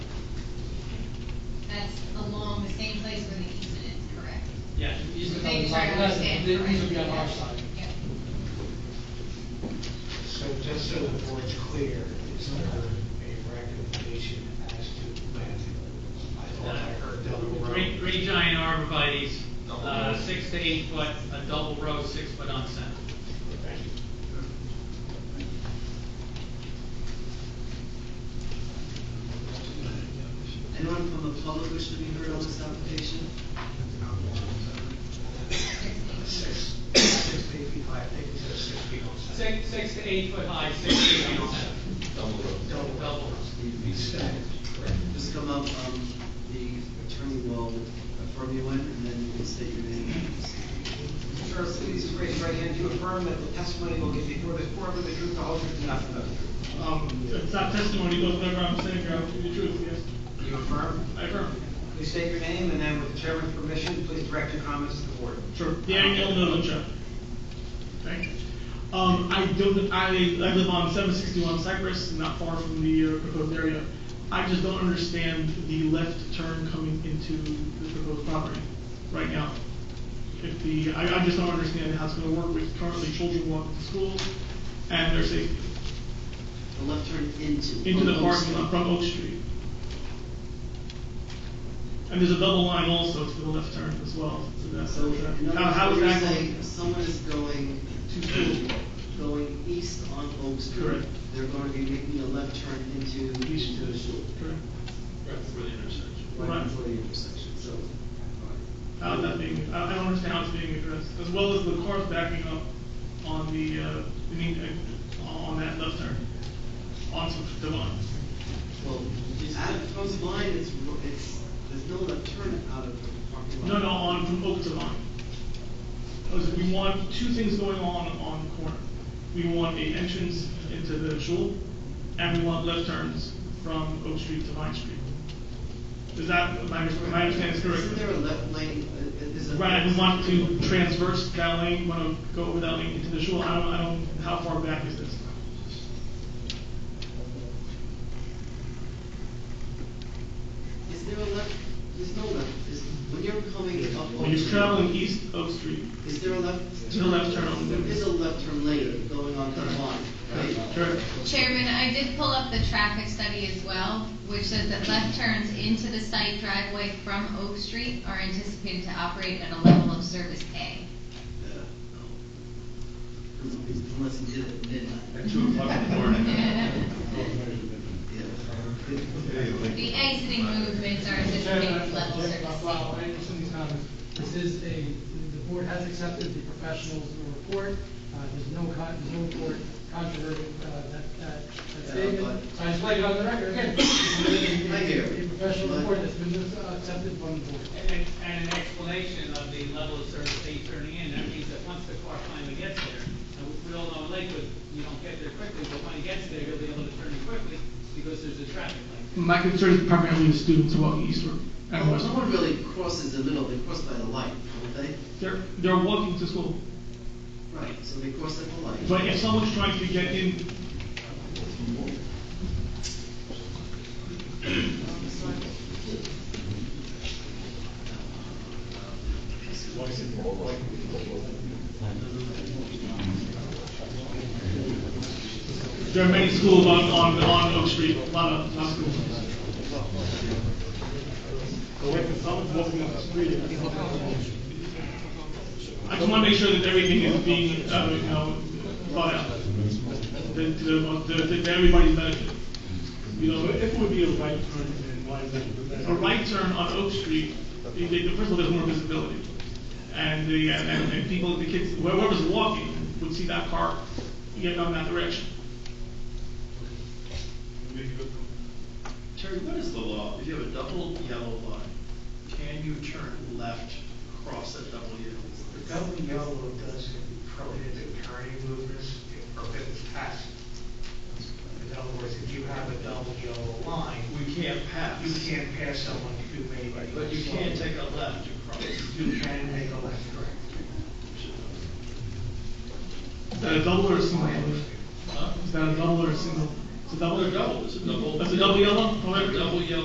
other trying side, to that's, understand these would be on correctly. our side. Yeah. So just so the board's clear, is there a recommendation as to planting? I thought I heard double row. Three, three giant arborvitae's, uh, six to eight foot, a double row, six foot on center. Thank you. Anyone from the public wish to be heard on this application? Six, six feet, I think it's a six feet on site. Six, six to eight foot high, six feet on center, Double row. double row. Be stacked. Just come up, um, the attorney will affirm you in, and then you can state your name. First, please raise your right hand. Do you affirm that the testimony will give before this board with the truth, the whole truth, and nothing but the truth? Um, it's not testimony, but whatever I'm saying, I'll tell you the truth, yes. Do you affirm? I affirm. Please state your name, and then with the chairman's permission, please direct your comments to the board. Sure. Daniel Middleton. Thank you. Um, I don't, I, I live on seven sixty-one Cypress, not far from the uh, proposed area. I just don't understand the left turn coming into the proposed property right now. If the, I, I just don't understand how it's gonna work with currently children walking to school and their safety The left turn into. into the Oak parking Street. lot from Oak Street. And there's a double line also to the left turn as well, so that's, So, in other how, how words, is you're that saying going? if someone is going to school, going east on Oak Street, Correct. they're going to be making a left turn into, East. into the school. Correct. before the intersection. Right Right. before the intersection, so. How is that being, I I don't understand how it's being addressed, as well as the cars backing up on the, uh, I mean, uh, on that left turn, onto Devon. Well, out of Post Line, it's, ro- it's, there's no left turn out of the parking lot. No, no, on from Oak to Vine. Because we want two things going on on the corner. We want a entrance into the shul, and we want left turns from Oak Street to Vine Street. Is that, my, my understanding is Isn't there a correct? left lane, uh, is it? Right, we want to transverse that lane, want to go over that lane into the shul, I don't, I don't, how far back is this? Is there a left, there's no left, is, when you're coming up Oak Street. When you're traveling east Oak Street, Is there a left? There's a left turn on There there. is a left turn lane going on the line, right? correct? Chairman, I did pull up the traffic study as well, which says that left turns into the site driveway from Oak Street are anticipated to operate at a level of service A. Yeah, no. Unless you did it at midnight. At two o'clock in the morning. Yeah. The exiting movements are anticipated at level Chairman, Jeff service A. Buckwell, I understand these comments. This is a, the board has accepted the professional's report. Uh, There's no, con- there's no report controverting uh, that- that that statement. So I just laid it on the record again. Thank you. A professional report that's been uh, accepted from the board. And, and- and an explanation of the level of service they turning in, that means that once the car finally gets there, and we- we all know in Lakewood, you don't get there quickly, but when it gets there, you'll be able to turn in quickly, because there's a traffic light. My concern is primarily the students walking eastward and Well, no westward. one really crosses the middle, they cross by the light, don't they? They're, they're walking to school. Right, so they cross at the light. But if someone's trying to get in, there are many schools on, on, on Oak Street, a lot of, lot of schools. I just wanna make sure that everything is being, uh, you know, thought out, that, that, that everybody's benefit. You know, If it would be a right turn, then why is that? a right turn on Oak Street, they- they- first of all, there's more visibility. And the, and, and people, the kids, whoever's walking would see that car get on that direction. Terry, what is the law? If you have a double yellow line, can you turn left across that double The yellow? double yellow doesn't prohibit turning movements, it prohibits passing. In other words, if you have a double yellow line, We can't pass. you can't pass someone who may be. But you can't take a left across. You can make a left, correct? Is that a double or a single? Is that a double or a single? It's a double? Double, it's a double. That's a double yellow? Double yellow